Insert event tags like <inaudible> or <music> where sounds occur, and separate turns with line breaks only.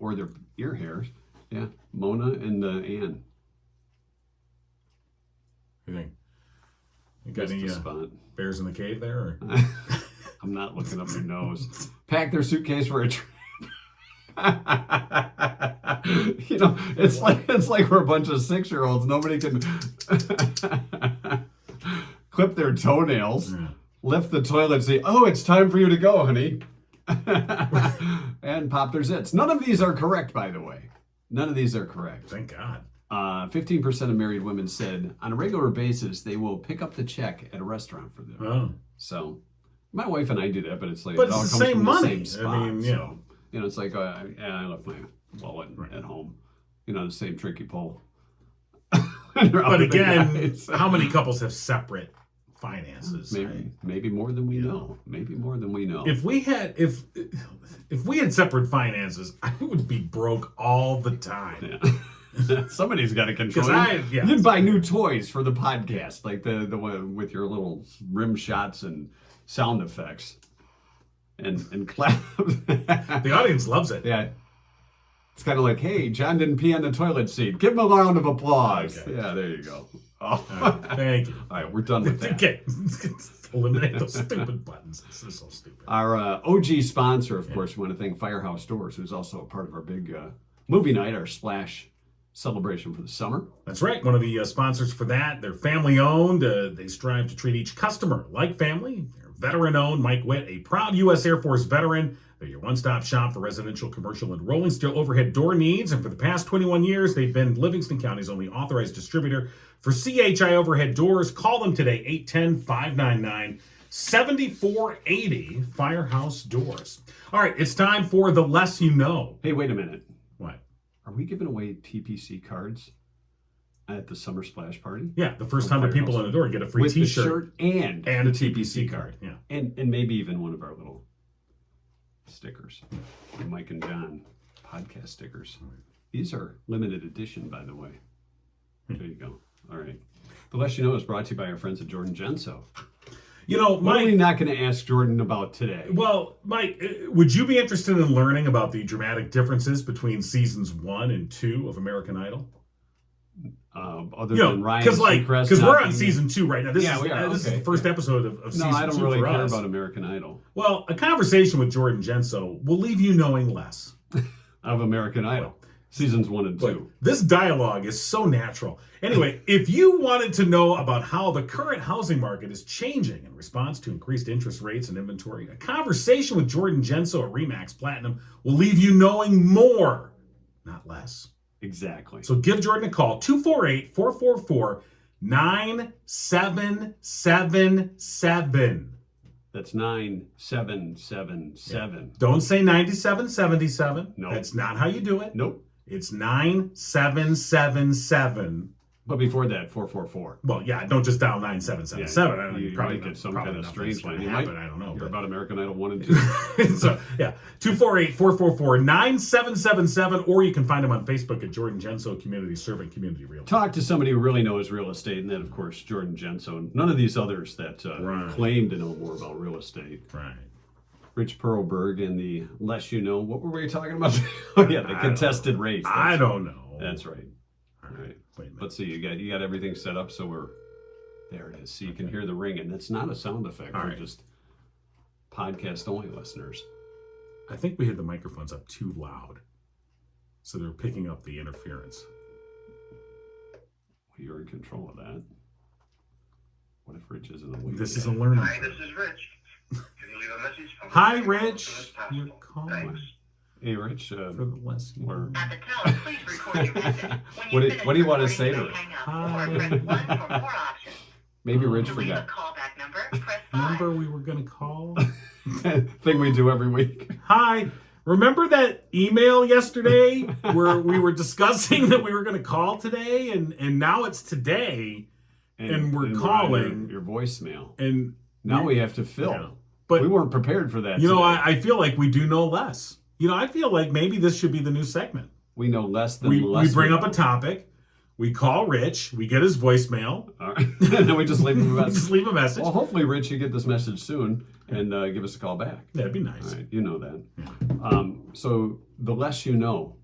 or their ear hairs. Yeah, Mona and uh, Anne.
What do you think? You got
That's
any
the
uh,
spot.
bears in the cave there?
<laughs>
Or?
I'm not looking up their nose. Pack their suitcase for a trip. <laughs> you know, it's like it's like we're a bunch of six year olds. Nobody can <laughs> clip their toenails,
Yeah.
lift the toilet, and say, "Oh, it's time for you to go, honey," and pop their zits. None of these are correct, by the way. None of these are correct.
Thank God.
Uh, 15% of married women said on a regular basis they will pick up the check at a restaurant for them.
Oh,
So, my wife and I do that, but it's like
But
it all
it's the
comes
same
from
money.
The same
I
spot,
mean, you
so,
know.
you know, it's like uh, yeah, I left my wallet
Right.
at home. You know, the same tricky <laughs> pole.
but again,
<laughs>
<laughs> how many couples have separate finances?
Maybe, maybe more than we know. Maybe more than we know.
If we had if if we had separate finances, <laughs> I would be broke all the time.
Yeah. <laughs> Somebody's got to control.
'Cause I-
it.
yeah.
You'd buy new toys for the podcast, like the the one with your little rim shots and sound effects, and and <laughs> clap.
The audience loves it.
Yeah. It's kind of like, hey, John didn't pee on the toilet seat. Give him a round of applause.
Okay.
Yeah, there you go. Oh.
<laughs> All right, thank you.
<laughs> All right, we're done with
<laughs>
that.
Okay, <laughs> eliminate those stupid buttons. This is so stupid.
Our uh, OG sponsor, of course, we want to thank Firehouse Doors, who's also a part of our big uh, movie night, our splash celebration for the summer.
That's right. One of the uh, sponsors for that. They're family owned. Uh, they strive to treat each customer like family. They're veteran owned. Mike Witt, a proud U.S. Air Force veteran. They're your one stop shop for residential, commercial, and rolling steel overhead door needs. And for the past 21 years, they've been Livingston County's only authorized distributor for CHI overhead doors. Call them today, 810 599 7480 Firehouse Doors. All right, it's time for The Less You Know.
Hey, wait a minute.
What?
Are we giving away TPC cards at the summer splash party?
Yeah, the first 100 people in the door get a free
Oh, With
t
the
shirt.
shirt and,
and a TPC card. Yeah.
and and maybe even one of our little stickers, the Mike and John podcast stickers. These are limited edition, by the way.
Hmm.
There you go. All right. The Less You Know is brought to you by our friends at Jordan Genso.
You know,
What are we not
Mike.
going to ask Jordan about today?
Well, Mike, uh, would you be interested in learning about the dramatic differences between seasons one and two of American Idol?
Uh, other
You know,
than Ryan
because like
Seacrest
because we're
not
on
being-
season two right now. This
Yeah,
is
we are,
uh, this
okay.
is the first episode of, of
No,
season
I don't
two
really
for
care
us.
about American Idol.
Well, a conversation with Jordan Genso will leave you knowing less.
Of American Idol, seasons one and
Look,
two.
This dialogue is so natural.
<laughs>
Anyway, if you wanted to know about how the current housing market is changing in response to increased interest rates and inventory, a conversation with Jordan Genso at Remax Platinum will leave you knowing more, not less.
Exactly.
So give Jordan a call 248 444 9777.
That's nine seven seven seven.
Don't say 9777.
No.
That's not how you do it.
Nope.
It's 9777.
But before that, four four four.
Well, yeah, don't just dial nine seven seven seven.
Yeah, you- you
probably
might get some
probably
kind of
nothing's
strange
gonna
one. You
happen,
might-
I don't know.
You're <laughs>
but- <laughs>
about American Idol one and two.
so yeah, 248-444-9777, or you can find him on Facebook at Jordan Genso Community Servant Community Real.
Talk to somebody who really knows real estate, and then of course Jordan Jensen. None of these others that uh,
Right.
claim to know more about real estate.
Right.
Rich Perlberg and the less you know. What were we talking about? <laughs> oh yeah, the
I don't
contested race. That's,
I don't know.
That's right.
All
right.
Wait a minute.
Let's see. You got you got everything set up, so we're there. It is. So you can hear the ring, and it's not a sound effect.
All
for
right.
just podcast only listeners.
I think we had the microphones up too loud, so they're picking up the interference.
You're in control of that. What if Rich isn't awake?
This
yet?
is a learning.
Hi,
curve.
this is Rich. Can you leave a message for me?
<laughs> Hi,
As
Rich.
soon as possible.
You're calling.
Thanks.
Hey, Rich. Uh,
For the less you
Or-
know.
At the tone, please record your message.
What do-
When
what do you
finish
wanna
recording,
say to
please
her?
hang up,
Hi.
Or press one for
<laughs>
more options.
maybe Rich
To leave a
forgot. <laughs>
callback number, press five.
Remember we were gonna call.
Thing we do every week.
Hi. Remember that email yesterday where we were discussing that we were going to call today and and now it's today And we're
on
calling-
your, your voicemail.
and
Now we have to fill.
Yeah. But-
we weren't prepared for that.
you know
today.
I, I feel like we do know less. You know, I feel like maybe this should be the new segment.
we know less than
We
less
we bring up
know.
a topic, we call Rich, we get his voicemail,
<laughs> All right. <laughs> and then we just leave him a
just <laughs>
message.
leave a message.
well, hopefully, Rich, you get this message soon, and uh, give us a call back.
That'd be
All
nice.
right, you know that. Um, so the less you know,